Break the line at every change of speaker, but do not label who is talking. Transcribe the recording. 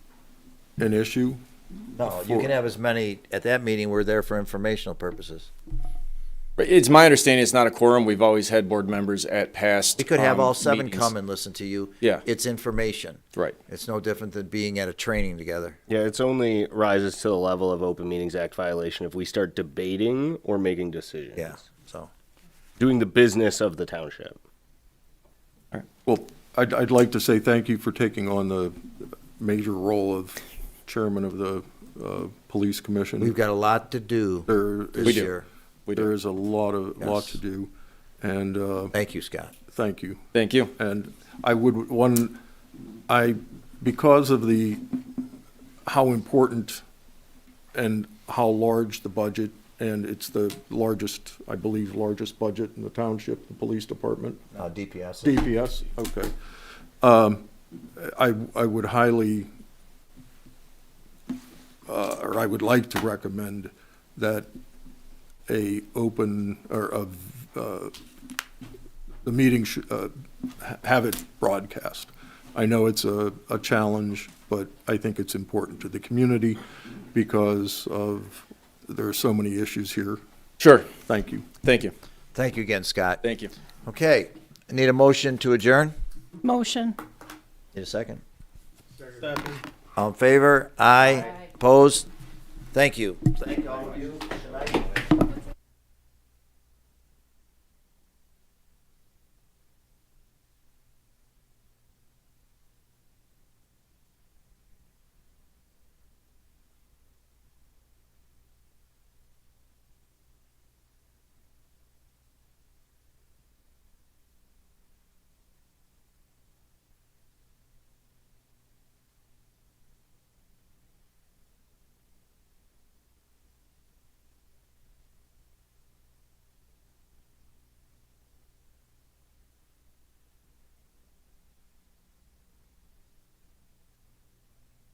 an issue.
No, you
For-
can have as many, at that meeting, we're there for informational purposes.
But It's my understanding it's not a quorum. We've always had board members at past.
We could have
um,
all seven
meetings.
come and listen to you.
Yeah.
It's information.
Right.
It's no different than being at a training together.
Yeah, it's only rises to the level of Open Meetings Act violation if we start debating or making decisions.
Yeah, so.
Doing the business of the township.
Well, I'd, I'd like to say thank you for taking on the major role of chairman of the uh, police commission.
We've got a lot to do
There is-
this year.
We do.
There is a lot of, lot
Yes.
to do, and uh,
Thank you, Scott.
thank you.
Thank you.
And I would, one, I, because of the, how important and how large the budget, and it's the largest, I believe, largest budget in the township, the police department.
Uh, DPS.
DPS, okay. Um, I, I would highly, uh, or I would like to recommend that a open, or of, uh, the meeting should, uh, ha- have it broadcast. I know it's a, a challenge, but I think it's important to the community because of, there are so many issues here.
Sure.
Thank you.
Thank you.
Thank you again, Scott.
Thank you.
Okay, I need a motion to adjourn?
Motion.
Need a second? All in favor? Aye. Opposed? Thank you. Thank all of you.